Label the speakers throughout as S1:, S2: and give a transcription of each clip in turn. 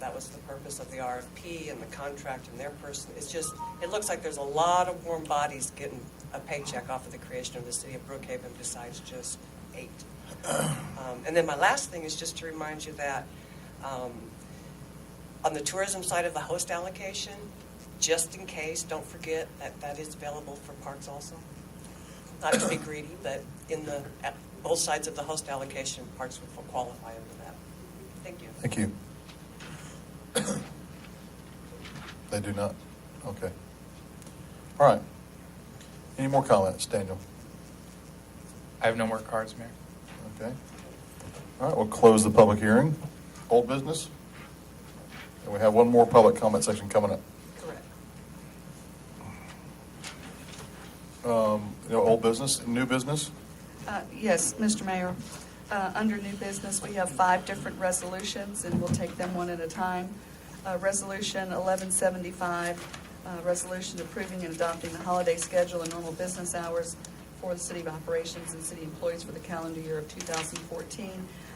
S1: that was the purpose of the RFP and the contract and their person. It's just, it looks like there's a lot of warm bodies getting a paycheck off of the creation of the city of Brookhaven besides just eight. Um, And then my last thing is just to remind you that um, on the tourism side of the host allocation, just in case, don't forget that that is available for parks also. Not to be greedy, but in the, at both sides of the host allocation, parks will qualify under that. Thank you.
S2: Thank you. They do not? Okay. All right. Any more comments, Daniel?
S3: I have no more cards, Mayor.
S2: Okay. All right, we'll close the public hearing. Old business? And we have one more public comment section coming up.
S1: Correct.
S2: Um, You know, old business, new business?
S4: Uh, Yes, Mr. Mayor. Uh, Under new business, we have five different resolutions, and we'll take them one at a time. Uh, Resolution 1175, uh, resolution approving and adopting the holiday schedule and normal business hours for the City of Operations and city employees for the calendar year of 2014.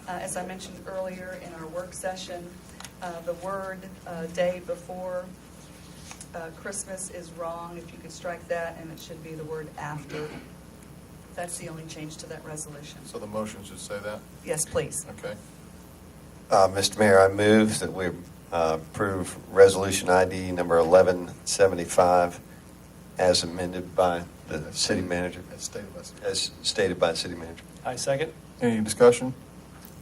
S4: Uh, As I mentioned earlier in our work session, uh, the word uh, "day" before uh, Christmas is wrong. If you could strike that, and it should be the word "after." That's the only change to that resolution.
S2: So the motion should say that?
S4: Yes, please.
S2: Okay.
S5: Uh, Mr. Mayor, I move that we uh, approve Resolution ID number 1175 as amended by the city manager,
S2: As stated by city-
S5: as stated by the city manager.
S6: I second.
S2: Any discussion?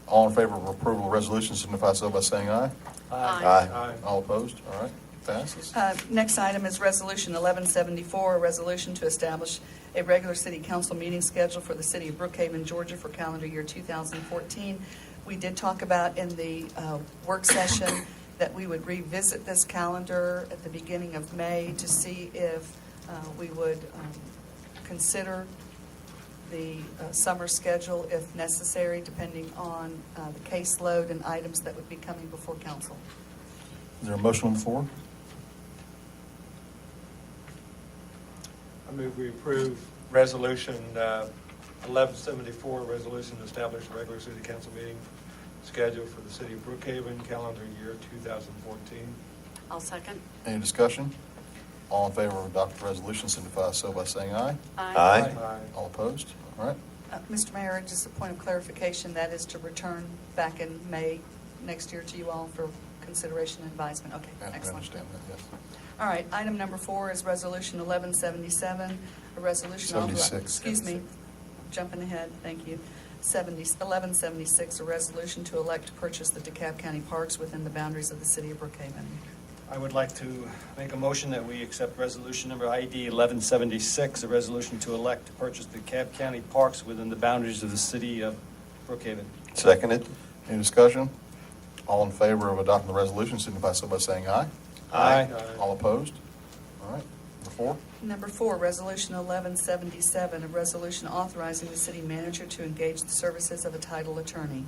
S2: All in favor of approval of resolution signify so by saying aye.
S5: Aye.
S2: All opposed? All right, passes.
S4: Uh, Next item is Resolution 1174, a resolution to establish a regular city council meeting schedule for the city of Brookhaven, Georgia for calendar year 2014. We did talk about in the uh, work session that we would revisit this calendar at the beginning of May to see if uh, we would um, consider the uh, summer schedule if necessary, depending on uh, the caseload and items that would be coming before council.
S2: Is there a motion on the floor?
S7: I move we approve Resolution uh, 1174, resolution to establish a regular city council meeting schedule for the city of Brookhaven, calendar year 2014.
S8: I'll second.
S2: Any discussion? All in favor of adopting the resolution signify so by saying aye.
S5: Aye.
S2: All opposed? All right.
S4: Uh, Mr. Mayor, just a point of clarification, that is to return back in May next year to you all for consideration and advisement. Okay,
S2: Yeah, I
S4: excellent.
S2: understand that, yes.
S4: All right, item number four is Resolution 1177, a resolution. authori-
S2: 76.
S4: Excuse me, jumping ahead, thank you. 70 1176, a resolution to elect to purchase the DeKalb County parks within the boundaries of the city of Brookhaven.
S6: I would like to make a motion that we accept resolution number ID 1176, a resolution to elect to purchase the Cab County parks within the boundaries of the city of Brookhaven.
S5: Seconded?
S2: Any discussion? All in favor of adopting the resolution signify so by saying aye.
S6: Aye.
S2: All opposed? All right. Number four.
S4: Number four, Resolution 1177, a resolution authorizing the city manager to engage the services of a title attorney.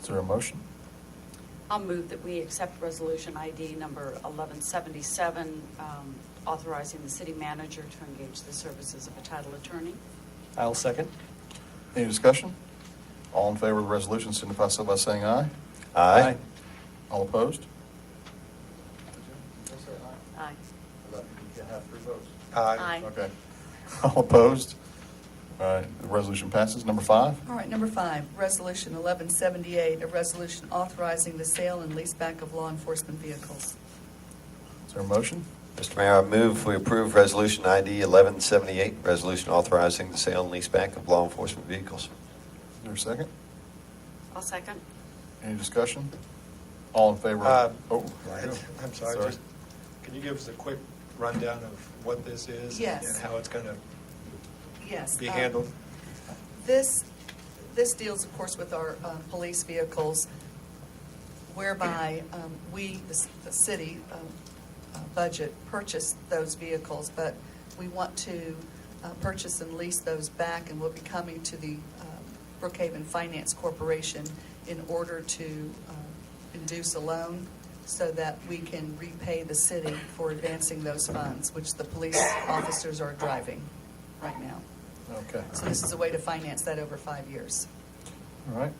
S2: Is there a motion?
S8: I'll move that we accept resolution ID number 1177, um, authorizing the city manager to engage the services of a title attorney.
S6: I'll second.
S2: Any discussion? All in favor of the resolution signify so by saying aye.
S5: Aye.
S2: All opposed?
S8: Aye. Aye.
S2: Okay. All opposed? All right, the resolution passes. Number five.
S4: All right, number five, Resolution 1178, a resolution authorizing the sale and leaseback of law enforcement vehicles.
S2: Is there a motion?
S5: Mr. Mayor, I move we approve Resolution ID 1178, resolution authorizing the sale and leaseback of law enforcement vehicles.
S2: Is there a second?
S8: I'll second.
S2: Any discussion? All in favor?
S7: Uh,
S2: of- Oh,
S7: I'm sorry, just, can you give us a quick rundown of what this is?
S4: Yes.
S7: And how it's going to
S4: Yes.
S7: be
S4: um,
S7: handled?
S4: This, this deals, of course, with our uh, police vehicles whereby um, we, the s- the city um, uh, budget, purchase those vehicles, but we want to uh, purchase and lease those back, and we'll be coming to the um, Brookhaven Finance Corporation in order to um, induce a loan so that we can repay the city for advancing those funds, which the police officers are driving right now.
S2: Okay.
S4: So this is a way to finance that over five years.
S2: All right.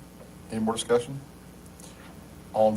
S2: Any more discussion? All in